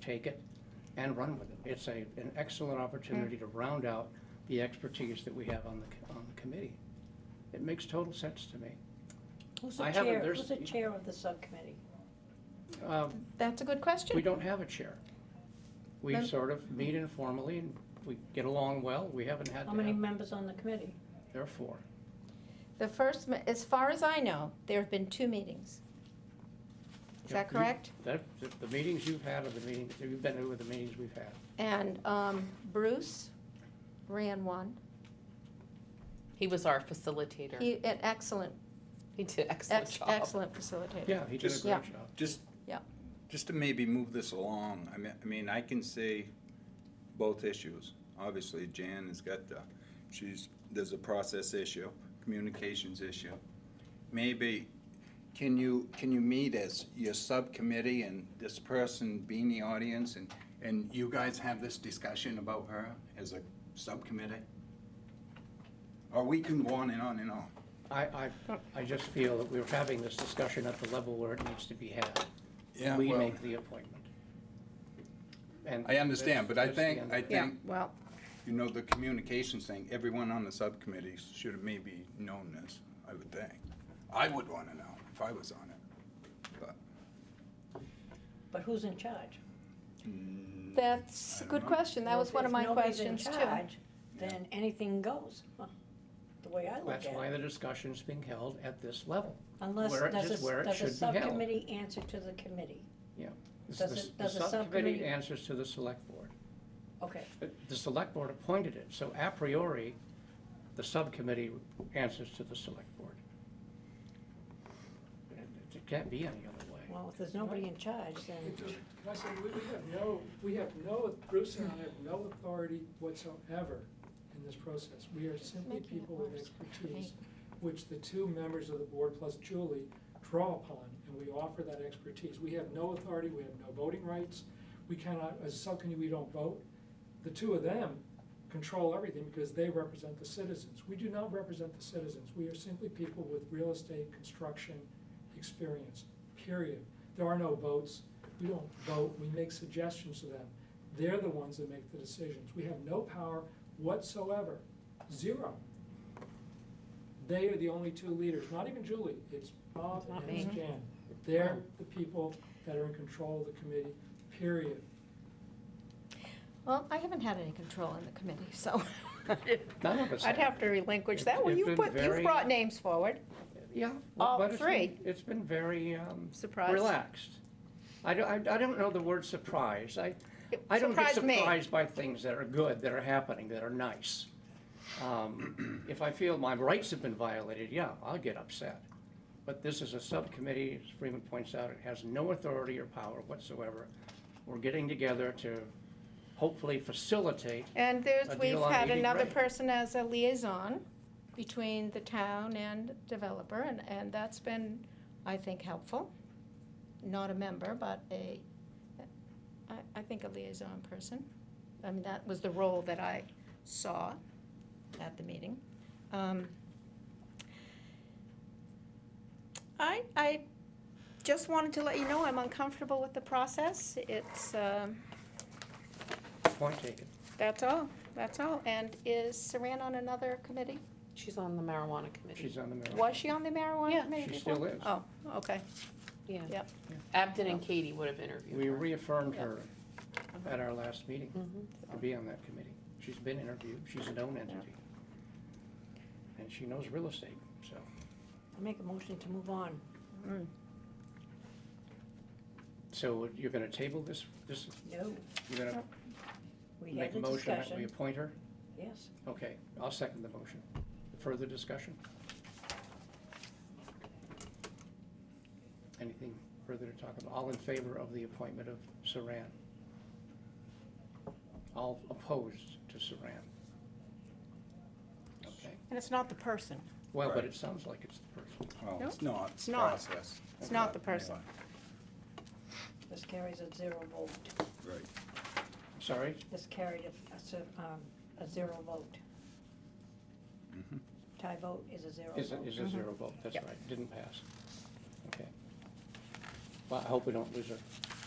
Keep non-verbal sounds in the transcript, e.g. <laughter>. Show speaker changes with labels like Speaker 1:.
Speaker 1: take it and run with it. It's a, an excellent opportunity to round out the expertise that we have on the, co- on the committee. It makes total sense to me.
Speaker 2: Who's the
Speaker 1: I haven't-
Speaker 2: chair,
Speaker 1: there's-
Speaker 2: who's the chair of the subcommittee?
Speaker 1: Uh,
Speaker 3: That's a good
Speaker 1: We
Speaker 3: question.
Speaker 1: don't have a chair. We
Speaker 3: Then-
Speaker 1: sort of meet informally and we get along well. We haven't had
Speaker 2: How
Speaker 1: to
Speaker 2: many
Speaker 1: have,
Speaker 2: members on the committee?
Speaker 1: therefore.
Speaker 3: The first, me- as far as I know, there have been two meetings. Is
Speaker 1: Yeah,
Speaker 3: that
Speaker 1: you-
Speaker 3: correct?
Speaker 1: That, the- the meetings you've had are the meetings, you've been to with the meetings we've had.
Speaker 3: And um, Bruce ran one.
Speaker 4: He was our facilitator. He,
Speaker 3: He, an excellent,
Speaker 4: did an excellent
Speaker 3: ex-
Speaker 4: job.
Speaker 3: excellent facilitator.
Speaker 1: Yeah, he did a
Speaker 5: Just-
Speaker 1: great
Speaker 3: Yeah.
Speaker 1: job.
Speaker 5: Just.
Speaker 3: Yeah.
Speaker 5: Just to maybe move this along, I mean, I mean, I can say both issues. Obviously, Jan has got the, she's, there's a process issue, communications issue. Maybe, can you, can you meet as your subcommittee and this person be in the audience and, and you guys have this discussion about her as a subcommittee? Or we can go on and on and on.
Speaker 1: I, I, I just feel that we're having this discussion at the level where it needs to be had.
Speaker 5: Yeah,
Speaker 1: We
Speaker 5: well-
Speaker 1: make the appointment. And
Speaker 5: I understand, but I
Speaker 1: that's the
Speaker 5: think-
Speaker 1: end
Speaker 5: I
Speaker 1: of it.
Speaker 3: Yeah,
Speaker 5: Think-
Speaker 3: well,
Speaker 5: You know, the communications thing, everyone on the subcommittee should have maybe known this, I would think. I would want to know if I was on it. But
Speaker 2: But who's in charge?
Speaker 3: that's
Speaker 5: I
Speaker 3: a
Speaker 5: don't
Speaker 3: good
Speaker 5: know.
Speaker 3: question. That
Speaker 2: Well,
Speaker 3: was one of
Speaker 2: if
Speaker 3: my
Speaker 2: nobody's in
Speaker 3: questions too.
Speaker 2: charge, Then anything goes, huh, the way I look at
Speaker 1: That's why
Speaker 2: it.
Speaker 1: the discussion's being held at this level.
Speaker 2: Unless,
Speaker 1: where it-
Speaker 2: does
Speaker 1: just
Speaker 2: a,
Speaker 1: where it
Speaker 2: does
Speaker 1: should
Speaker 2: a
Speaker 1: be held.
Speaker 2: subcommittee answer to the committee?
Speaker 1: It's
Speaker 2: Does
Speaker 1: the-
Speaker 2: it- does the
Speaker 1: The subcommittee
Speaker 2: subcommittee-
Speaker 1: answers to the select board.
Speaker 2: Okay,
Speaker 1: Uh, The select board appointed it, so a priori, the subcommittee answers to the select board. It it can't be any other way.
Speaker 2: well, if there's nobody in charge, then,
Speaker 6: I said, we we have no, we have no, Bruce and I have no authority whatsoever in this process. We are simply
Speaker 3: Making it
Speaker 6: people with
Speaker 3: worse.
Speaker 6: expertise, which the two members of the board plus Julie draw upon, and we offer that expertise. We have no authority, we have no voting rights, we cannot, as a subcommittee, we don't vote. The two of them control everything because they represent the citizens. We do not represent the citizens. We are simply people with real estate construction experience, period. There are no votes. We don't vote. We make suggestions to them. They're the ones that make the decisions. We have no power whatsoever, zero. They are the only two leaders, not even Julie. It's Bob
Speaker 4: Not
Speaker 6: and it's
Speaker 4: me.
Speaker 6: Jan. They're the people that are in control of the committee, period.
Speaker 3: Well, I haven't had any control in the committee, so
Speaker 1: None of us
Speaker 3: <laughs> I'd
Speaker 1: have.
Speaker 3: have to relinquish
Speaker 1: It's-
Speaker 3: that. Well,
Speaker 1: it's
Speaker 3: you
Speaker 1: been
Speaker 3: put, you've
Speaker 1: very-
Speaker 3: brought names forward.
Speaker 1: Yeah.
Speaker 3: All
Speaker 1: but it's been-
Speaker 3: three.
Speaker 1: It's been very, um,
Speaker 3: Surprised.
Speaker 1: relaxed. I don't, I I don't know the word surprise. I,
Speaker 3: It
Speaker 1: I don't get
Speaker 3: surprised me.
Speaker 1: surprised by things that are good, that are happening, that are nice. Um, If I feel my rights have been violated, yeah, I'll get upset. But this is a subcommittee, as Freeman points out, it has no authority or power whatsoever. We're getting together to hopefully facilitate,
Speaker 3: And there's,
Speaker 1: a
Speaker 3: we've
Speaker 1: deal on
Speaker 3: had
Speaker 1: 80
Speaker 3: another
Speaker 1: grand.
Speaker 3: person as a liaison between the town and developer, and, and that's been, I think, helpful. Not a member, but a, I, I think a liaison person. I mean, that was the role that I saw at the meeting. Um, I, I just wanted to let you know I'm uncomfortable with the process. It's, um,
Speaker 1: point taken.
Speaker 3: that's all, that's all. And is Saran on another committee?
Speaker 4: She's on the marijuana committee.
Speaker 1: She's on the mayor.
Speaker 3: Was she on the marijuana
Speaker 4: Yeah.
Speaker 3: committee
Speaker 1: She
Speaker 3: before?
Speaker 1: still is.
Speaker 3: Oh, okay,
Speaker 4: yeah.
Speaker 3: Yep.
Speaker 4: Abden and Katie would have interviewed
Speaker 1: We
Speaker 4: her.
Speaker 1: reaffirmed
Speaker 3: Yeah.
Speaker 1: her at our last meeting
Speaker 3: Mm-hmm.
Speaker 4: Mhm.
Speaker 1: to be on that committee. She's been interviewed, she's a known entity. And she knows real estate, so.
Speaker 2: I make a motion to move on.
Speaker 1: So you're gonna table this, this,
Speaker 2: No,
Speaker 1: you're gonna
Speaker 2: Oh, we
Speaker 1: make
Speaker 2: had
Speaker 1: a
Speaker 2: a
Speaker 1: motion that we
Speaker 2: discussion,
Speaker 1: appoint her?
Speaker 2: yes.
Speaker 1: Okay, I'll second the motion. Further discussion? Anything further to talk about? All in favor of the appointment of Saran? All opposed to Saran? Okay,
Speaker 3: and it's not the person.
Speaker 1: well, but it sounds like it's the person.
Speaker 5: Well,
Speaker 3: No,
Speaker 5: it's not,
Speaker 3: it's
Speaker 5: it's
Speaker 3: not.
Speaker 5: process.
Speaker 3: It's not the person.
Speaker 2: This carries a zero vote.
Speaker 5: Right.
Speaker 1: Sorry,
Speaker 2: This carried a, a zer- um, a zero vote.
Speaker 5: Mhm.
Speaker 2: Tie vote is a zero
Speaker 1: is, a-
Speaker 2: vote. Mm-hmm.
Speaker 1: is a zero vote, that's
Speaker 2: Yep.
Speaker 1: right, didn't pass. Okay. Well, I hope we don't lose her.